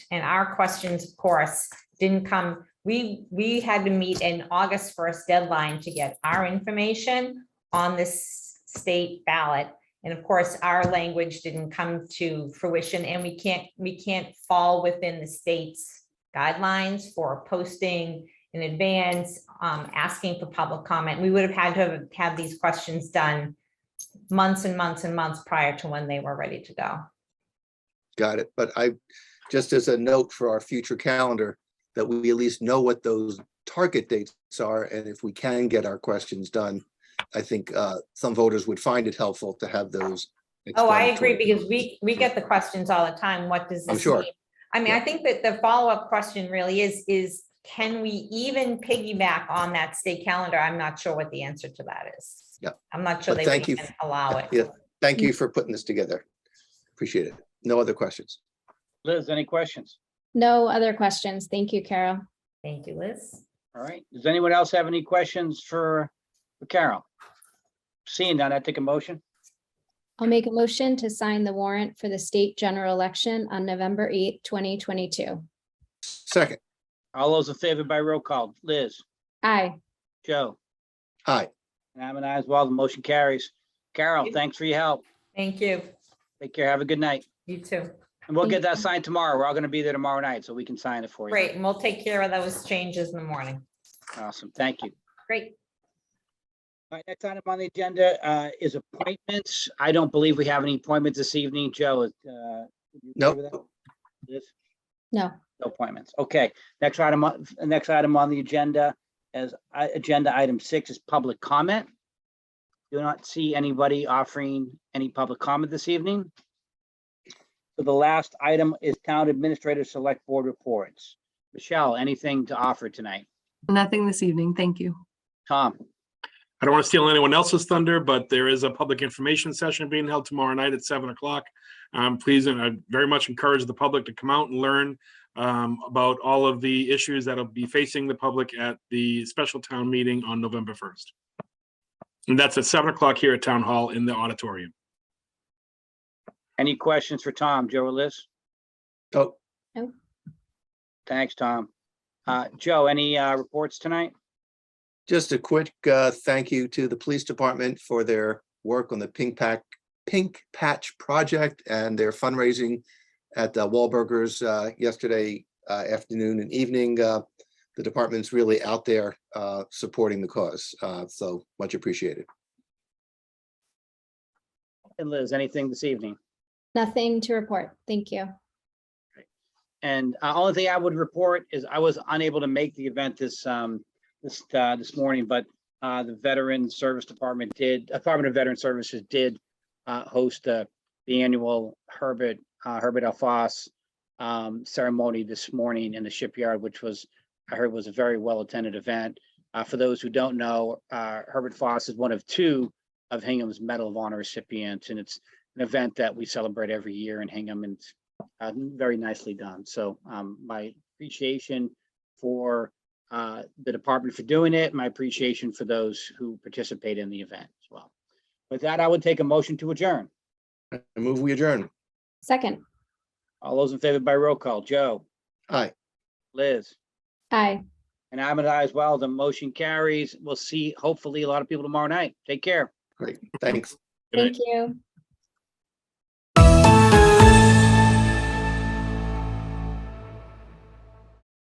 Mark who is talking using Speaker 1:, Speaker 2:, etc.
Speaker 1: and our questions, of course, didn't come. We, we had to meet an August first deadline to get our information on this state ballot. And of course, our language didn't come to fruition and we can't, we can't fall within the state's guidelines for posting in advance, um, asking for public comment. We would have had to have had these questions done months and months and months prior to when they were ready to go.
Speaker 2: Got it. But I, just as a note for our future calendar, that we at least know what those target dates are, and if we can get our questions done, I think uh, some voters would find it helpful to have those.
Speaker 1: Oh, I agree,
Speaker 2: explanatory.
Speaker 1: because we, we get the questions all the time, what does
Speaker 2: I'm
Speaker 1: this
Speaker 2: sure.
Speaker 1: mean? I mean, I think that the follow-up question really is, is can we even piggyback on that state calendar? I'm not sure what the answer to that is.
Speaker 2: Yep.
Speaker 1: I'm not sure
Speaker 2: But
Speaker 1: they
Speaker 2: thank you.
Speaker 1: can allow it.
Speaker 2: Yeah. Thank
Speaker 1: Mm.
Speaker 2: you for putting this together. Appreciate it. No other questions.
Speaker 3: Liz, any questions?
Speaker 4: No other questions. Thank you, Carol.
Speaker 1: Thank you, Liz.
Speaker 3: All right. Does anyone else have any questions for for Carol? Seeing none, I take a motion.
Speaker 4: I'll make a motion to sign the warrant for the state general election on November eighth, twenty twenty-two.
Speaker 2: Second,
Speaker 3: All those in favor by roll call, Liz,
Speaker 4: Aye,
Speaker 3: Joe,
Speaker 2: aye,
Speaker 3: and I'm an aye as well. The motion carries. Carol,
Speaker 1: Thank you.
Speaker 3: thanks for your help.
Speaker 1: Thank you.
Speaker 3: Take care. Have a good night.
Speaker 1: You too.
Speaker 3: And we'll get
Speaker 4: Thank
Speaker 3: that signed tomorrow. We're all going to be there tomorrow night, so we can sign it for you.
Speaker 1: Great, and we'll take care of those changes in the morning.
Speaker 3: Awesome. Thank you.
Speaker 1: Great.
Speaker 3: All right, next item on the agenda uh, is appointments. I don't believe we have any appointments this evening. Joe, is, uh, you okay with that?
Speaker 2: nope,
Speaker 3: Liz?
Speaker 4: no,
Speaker 3: No appointments. Okay, next item, on- next item on the agenda as I- agenda item six is public comment. Do not see anybody offering any public comment this evening. So the last item is town administrator select board reports. Michelle, anything to offer tonight?
Speaker 5: Nothing this evening, thank you.
Speaker 3: Tom,
Speaker 6: I don't want to steal anyone else's thunder, but there is a public information session being held tomorrow night at seven o'clock. Um, please, and I very much encourage the public to come out and learn um, about all of the issues that'll be facing the public at the special town meeting on November first. And that's at seven o'clock here at Town Hall in the auditorium.
Speaker 3: any questions for Tom, Joe or Liz?
Speaker 2: oh,
Speaker 3: Thanks, Tom. Uh, Joe, any uh, reports tonight?
Speaker 2: Just a quick uh, thank you to the police department for their work on the Pink Pack, Pink Patch Project and their fundraising at uh, Wahlburgers uh, yesterday uh, afternoon and evening. Uh, The department's really out there uh, supporting the cause, uh, so much appreciated.
Speaker 3: And Liz, anything this evening?
Speaker 4: nothing to report. Thank you.
Speaker 3: And uh, only thing I would report is I was unable to make the event this, um, this, uh, this morning, but, uh, the Veteran Service Department did, Department of Veteran Services did, uh, host, uh, the annual Herbert, uh, Herbert L. Foss, um, ceremony this morning in the shipyard, which was, I heard was a very well-attended event. Uh, for those who don't know, uh, Herbert Foss is one of two of Hingham's Medal of Honor recipients, and it's an event that we celebrate every year in Hingham, and it's uh, very nicely done. So um, my appreciation for uh, the department for doing it, my appreciation for those who participate in the event as well. With that, I would take a motion to adjourn.
Speaker 2: I move we adjourn.
Speaker 4: Second,
Speaker 3: All those in favor by roll call, Joe,
Speaker 2: Aye.
Speaker 3: Liz,
Speaker 4: aye,
Speaker 3: and I'm an aye as well. The motion carries. We'll see hopefully a lot of people tomorrow night. Take care.
Speaker 2: Great. Thanks.
Speaker 6: Good night.
Speaker 4: thank you.